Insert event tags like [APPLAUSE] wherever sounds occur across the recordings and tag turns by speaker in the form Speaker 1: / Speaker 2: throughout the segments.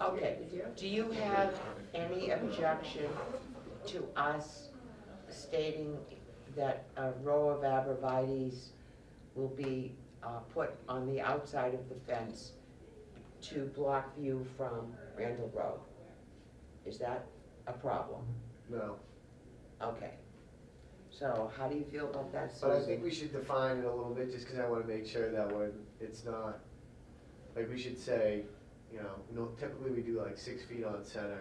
Speaker 1: Okay, Oh. do you have any objection to us stating that a row of abrevieties will be uh, put on the outside of the fence to block view from Randall Road? Is that a problem?
Speaker 2: No,
Speaker 1: Okay. So how do you feel about that,
Speaker 2: but I think
Speaker 1: Susan?
Speaker 2: we should define it a little bit, just because I want to make sure that when it's not, like, we should say, you know, no, typically we do like six feet on center,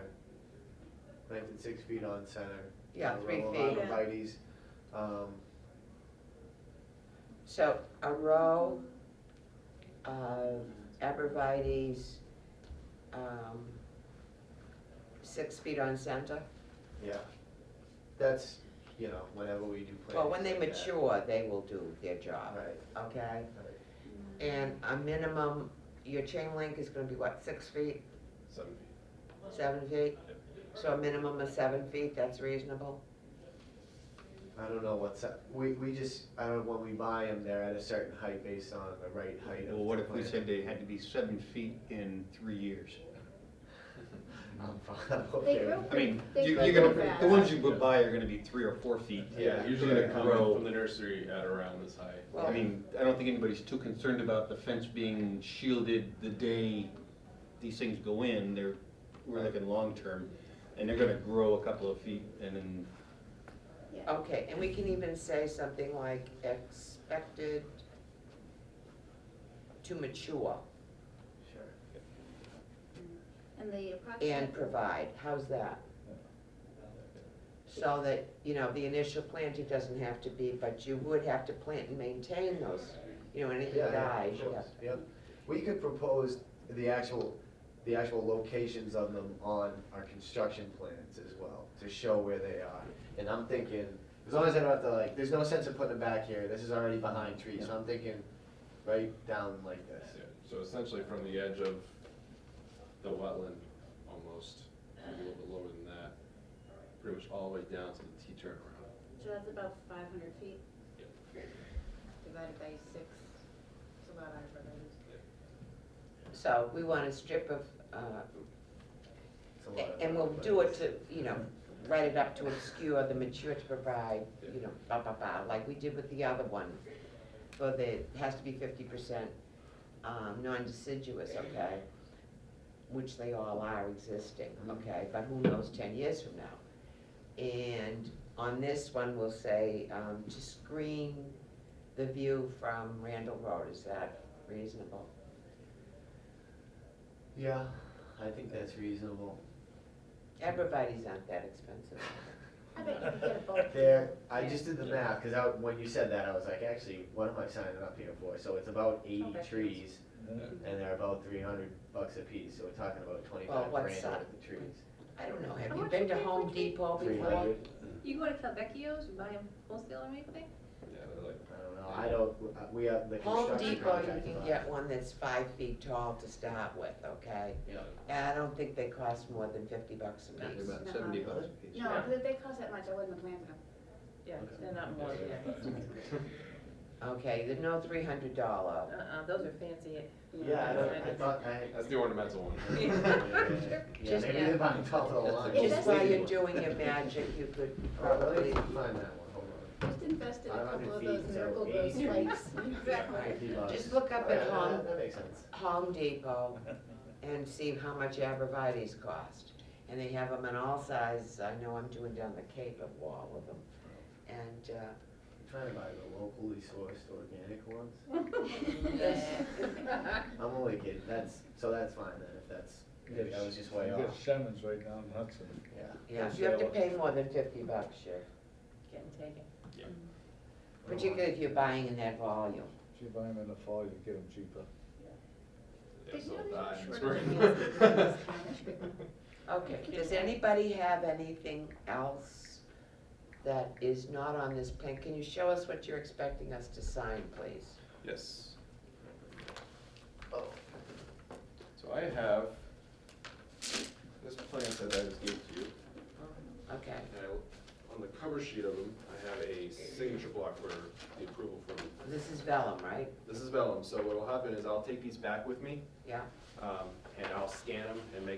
Speaker 2: planted six feet on center.
Speaker 1: Yeah,
Speaker 2: a
Speaker 1: three
Speaker 2: row of
Speaker 1: feet.
Speaker 2: arborvitae's, um,
Speaker 1: So a row of abrevieties, um, six feet on center?
Speaker 2: yeah, that's, you know, whenever we do plantings.
Speaker 1: Well, when they
Speaker 2: like that.
Speaker 1: mature, they will do their
Speaker 2: Right,
Speaker 1: job,
Speaker 2: right.
Speaker 1: okay? And a minimum, your chain link is gonna be what, six feet,
Speaker 3: Seven
Speaker 1: seven feet? So a minimum of seven feet, that's reasonable?
Speaker 2: I don't know what's up, we, we just, I don't, when we buy them, they're at a certain height based on the right height of the
Speaker 4: Well, what if we
Speaker 2: plant.
Speaker 4: said they had to be seven feet in three years?
Speaker 2: I'm fine, [LAUGHS] I'm
Speaker 5: They
Speaker 2: okay.
Speaker 5: grew
Speaker 4: I mean,
Speaker 5: They
Speaker 4: you-
Speaker 2: grow
Speaker 4: you're gonna,
Speaker 5: fast.
Speaker 4: the ones you would buy are gonna be three or four feet.
Speaker 3: Yeah, usually they
Speaker 4: They're gonna
Speaker 3: come
Speaker 4: grow.
Speaker 3: from the nursery at around this height.
Speaker 4: I mean, I don't think anybody's too concerned about the fence being shielded the day these things go in. They're, we're looking long-term, and they're gonna grow a couple of feet and then
Speaker 1: Okay, and we can even say something like expected to mature
Speaker 2: Sure.
Speaker 5: And the approximate.
Speaker 1: and provide, how's that? So that, you know, the initial planting doesn't have to be, but you would have to plant and maintain those, you know, anything
Speaker 2: Yeah, yeah,
Speaker 1: dies,
Speaker 2: of
Speaker 1: you
Speaker 2: course,
Speaker 1: have-
Speaker 2: yep. We could propose the actual, the actual locations of them on our construction plans as well, to show where they are. And I'm thinking, as long as I don't have to like, there's no sense of putting them back here, this is already behind trees, so I'm thinking right down like this.
Speaker 3: Yeah, So essentially from the edge of the wetland, almost, maybe a little bit lower than that, pretty much all the way down to the T turnaround.
Speaker 5: So that's about five hundred feet.
Speaker 3: Yep.
Speaker 5: Divided by six, it's about our brothers.
Speaker 1: So we want a strip of, uh,
Speaker 2: It's a lot of-
Speaker 1: And we'll do it to, you know, write it up to obscure the mature to provide, you know, blah, blah, blah, like we did with the other one. For the, it has to be fifty percent, um, non-deciduous, okay? Which they all are existing, okay, but who knows ten years from now? And on this one, we'll say, um, to screen the view from Randall Road, is that reasonable?
Speaker 2: Yeah, I think that's reasonable.
Speaker 1: Everybody's not that expensive.
Speaker 5: I bet you could get a boat.
Speaker 2: [LAUGHS] There, I just did the math, cause I, when you said that, I was like, actually, what am I signing up here for? So it's about
Speaker 1: Oh,
Speaker 2: eighty
Speaker 5: Okay.
Speaker 2: trees, and they're about three hundred bucks a piece, so we're talking about twenty-five
Speaker 1: what's
Speaker 2: grand worth
Speaker 1: that?
Speaker 2: of trees.
Speaker 1: I don't know, have
Speaker 6: How
Speaker 1: you
Speaker 6: much
Speaker 1: been
Speaker 6: you
Speaker 1: to
Speaker 6: pay for
Speaker 1: Home
Speaker 6: a tree?
Speaker 1: Depot
Speaker 2: Three
Speaker 1: before?
Speaker 2: hundred,
Speaker 6: You go to Calvecchio's, you buy them wholesale or anything?
Speaker 3: Yeah, they're like,
Speaker 2: I don't know, I don't, uh, we have the
Speaker 1: Home
Speaker 2: construction
Speaker 1: Depot,
Speaker 2: contract.
Speaker 1: you can get one that's five feet tall to start with, okay?
Speaker 2: Yeah.
Speaker 1: And I don't think they cost more than fifty bucks a
Speaker 4: they're
Speaker 1: piece.
Speaker 4: about seventy bucks a piece.
Speaker 5: No, because if they cost that much, I wouldn't have planted them.
Speaker 6: Yeah, they're not more, yeah.
Speaker 1: Okay, there's no three hundred dollar.
Speaker 6: Uh-uh, those are fancy.
Speaker 2: Yeah, I don't, I thought, I.
Speaker 3: [LAUGHS] [LAUGHS] that's the ornamental one.
Speaker 2: [LAUGHS] Yeah,
Speaker 1: Just-
Speaker 2: maybe they're buying top of the line.
Speaker 5: Is
Speaker 1: Just
Speaker 5: this-
Speaker 1: while you're doing your magic, you could probably,
Speaker 2: Probably Oh, find that one, hold
Speaker 5: Just invest in a couple
Speaker 2: 500
Speaker 5: of those
Speaker 2: feet, so
Speaker 5: miracle grow
Speaker 2: 80
Speaker 5: spikes.
Speaker 2: on.
Speaker 5: [LAUGHS] Exactly.
Speaker 2: $50.
Speaker 1: Just look up at
Speaker 2: Yeah,
Speaker 1: home.
Speaker 2: that- That makes sense.
Speaker 1: Home Depot and see how much abrevieties cost. And they have them in all sizes, I know I'm doing down the Cape of wall with them. And, uh,
Speaker 2: I'm Trying to buy the locally sourced organic ones.
Speaker 6: Yeah.
Speaker 2: I'm only kidding, that's, so that's fine then, if that's, maybe I was just way
Speaker 7: You got
Speaker 2: off,
Speaker 7: Shannon's right down Hudson.
Speaker 2: yeah.
Speaker 1: yeah, you have to pay more than fifty bucks, sure.
Speaker 6: Getting taken.
Speaker 1: Particularly if you're buying in that volume.
Speaker 7: If you buy them in the fall, you get them cheaper.
Speaker 3: Yeah,
Speaker 5: Did
Speaker 3: so
Speaker 5: you
Speaker 3: it
Speaker 5: know
Speaker 3: dies.
Speaker 5: short
Speaker 3: [LAUGHS]
Speaker 5: nails?
Speaker 1: Okay, does anybody have anything else that is not on this plan? Can you show us what you're expecting us to sign, please?
Speaker 3: Yes.
Speaker 2: Oh.
Speaker 3: So I have this plant that I just gave to you.
Speaker 1: Okay,
Speaker 3: And I- Uh, on the cover sheet of them, I have a signature block for the approval form.
Speaker 1: this is vellum, right?
Speaker 3: This is vellum, so what will happen is I'll take these back with me,
Speaker 1: Yeah?
Speaker 3: um, and I'll scan them and make